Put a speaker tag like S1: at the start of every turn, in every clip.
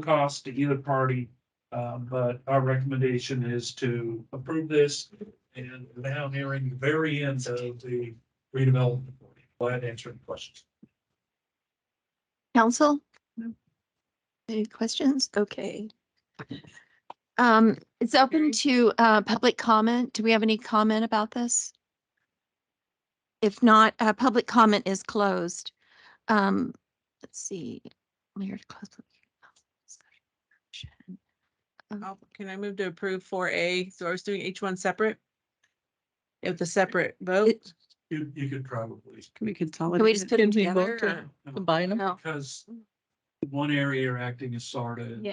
S1: cost to either party. Uh, but our recommendation is to approve this and now nearing the very end of the redevelopment. Glad to answer any questions.
S2: Council?
S1: No.
S2: Any questions? Okay. Um, it's open to, uh, public comment. Do we have any comment about this? If not, uh, public comment is closed. Um, let's see. Mayor to close public hearing.
S3: I'll- Oh, Can I move to approve four A? So I was doing each one separate? With a separate vote,
S1: You, you could probably,
S4: Can we consolidate?
S2: Can we just put them
S4: Can we vote
S2: together?
S4: to
S2: or-
S4: Combine them?
S2: No.
S1: because one area you're acting as SARTA.
S2: And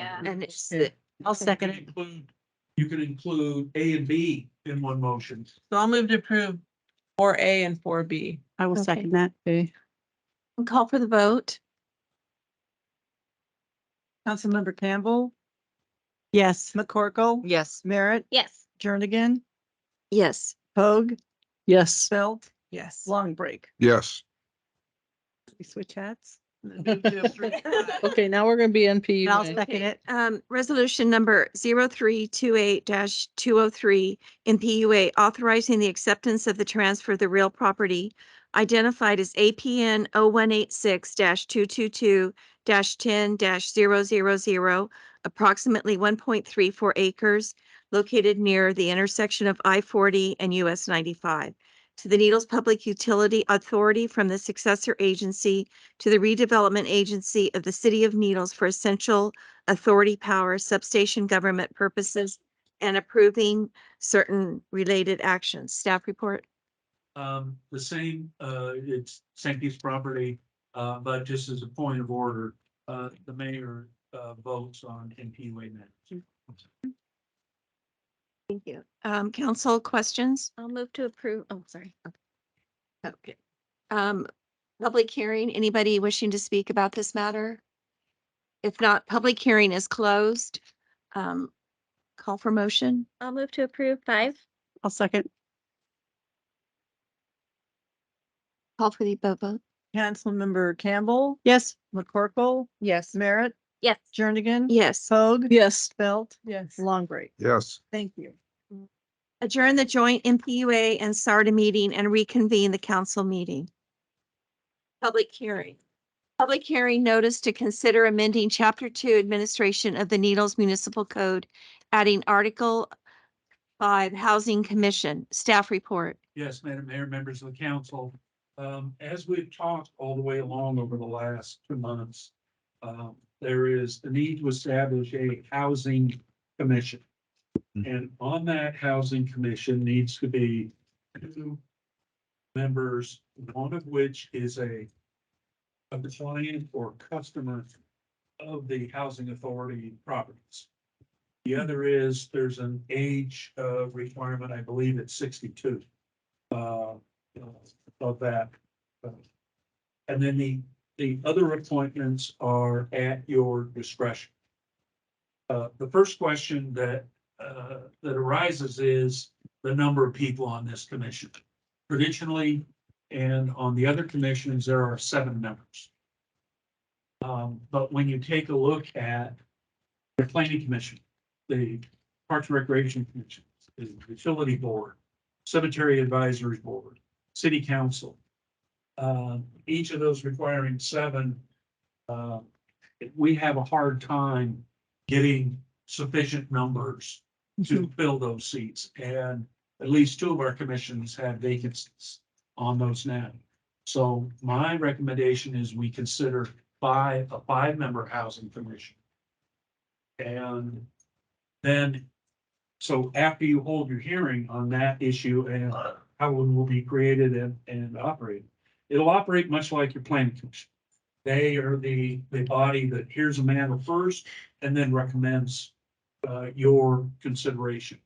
S2: it's,
S4: Yeah.
S2: I'll
S1: You
S2: second
S1: could
S2: it.
S1: include- You could include A and B in one motion.
S3: so I'll move to approve four A and four B.
S4: I will
S2: Okay.
S4: second that. Okay.
S2: Call for the vote.
S5: Councilmember Campbell,
S4: Yes.
S5: McCorkle,
S4: Yes.
S5: Merritt,
S2: Yes.
S5: Jernigan,
S2: Yes.
S5: Hoag,
S4: Yes.
S5: Belt,
S3: Yes.
S5: Long Break.
S6: Yes,
S5: We switch hats.
S4: Okay, now we're gonna be NP.
S5: And I'll second it.
S2: Um, resolution number 0328 two oh three in PUA authorizing the acceptance of the transfer of the real property identified as APN 186 two two two ten 0 approximately one point three four acres located near the intersection of I forty and US ninety-five to the Needles Public Utility Authority from the successor agency to the redevelopment agency of the city of Needles for essential authority power substation government purposes and approving certain related actions. Staff report.
S1: Um, the same, uh, it's St. Pete's property, uh, but just as a point of order, uh, the mayor, uh, votes on NPUA matters.
S2: Thank you. Um, council questions?
S7: I'll move to approve. Oh, sorry.
S2: Okay. Um, public hearing, anybody wishing to speak about this matter? If not, public hearing is closed. Um, call for motion.
S7: I'll move to approve five.
S4: I'll second.
S2: Call for the vote. vote.
S5: Councilmember Campbell,
S4: Yes.
S5: McCorkle,
S3: Yes.
S5: Merritt,
S7: Yes.
S5: Jernigan,
S2: Yes.
S5: Hoag,
S4: Yes.
S5: Belt,
S3: Yes.
S5: Long Break.
S6: yes,
S5: Thank you.
S2: Adjourn the joint MPUA and SARDA meeting and reconvene the council meeting. Public hearing. Public hearing notice to consider amending Chapter Two Administration of the Needles Municipal Code, adding Article Five Housing Commission. Staff report.
S1: Yes, Madam Mayor, members of the council, um, as we've talked all the way along over the last two months, um, there is the need to establish a housing commission. And on that housing commission needs to be two members, one of which is a a client or customer of the housing authority properties. The other is, there's an age uh, requirement, I believe it's sixty-two uh, of that. And then the, the other appointments are at your discretion. Uh, the first question that, uh, that arises is the number of people on this commission. Traditionally, and on the other commissions, there are seven members. Um, but when you take a look at the planning commission, the Parks and Recreation Commission, the utility board, Cemetery Advisory Board, City Council. Uh, each of those requiring seven, uh, we have a hard time getting sufficient numbers to fill those seats. And at least two of our commissions have vacancies on those now. So my recommendation is we consider five, a five-member housing commission. And then so after you hold your hearing on that issue and how it will be created and, and operated, it'll operate much like your planning commission. They are the, the body that hears a matter first and then recommends, uh, your consideration.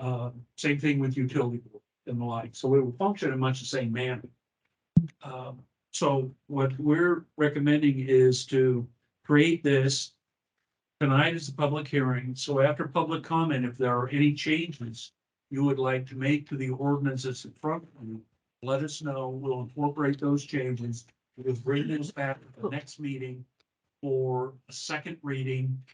S1: Uh, same thing with utility board and the like, so it will function in much the same manner. Um, so what we're recommending is to create this Tonight is the public hearing, so after public comment, if there are any changes you would like to make to the ordinances in front of you, let us know. We'll incorporate those changes. We'll bring this back to the next meeting for a second reading